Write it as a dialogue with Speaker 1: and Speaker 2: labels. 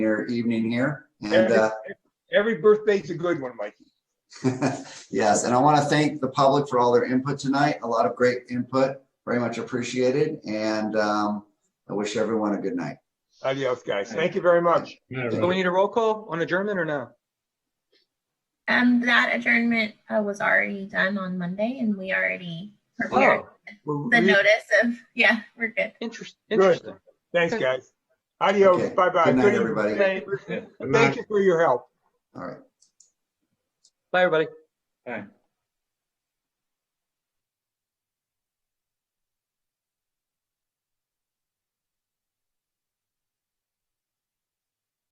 Speaker 1: your evening here. And
Speaker 2: Every-
Speaker 1: uh,
Speaker 2: Every birthday's a good one, Mikey.
Speaker 1: uh, yes, and I want to thank the public for all their input tonight. A lot of great input, very much appreciated. And um, I wish everyone a good night.
Speaker 2: Adios, guys. Thank you very much.
Speaker 3: Do we need a roll call on adjournment or no?
Speaker 4: Um, that adjournment uh, was already done on Monday and we already prepared
Speaker 3: Oh,
Speaker 4: the notice of, yeah, we're good.
Speaker 3: interest, interesting.
Speaker 2: Thanks,
Speaker 3: Okay.
Speaker 2: guys. Adios.
Speaker 1: Okay.
Speaker 2: Bye-bye.
Speaker 1: Good night,
Speaker 2: evening.
Speaker 1: everybody.
Speaker 2: Thank
Speaker 3: Good
Speaker 2: you for your help.
Speaker 1: All right.
Speaker 3: Bye, everybody.
Speaker 5: Bye.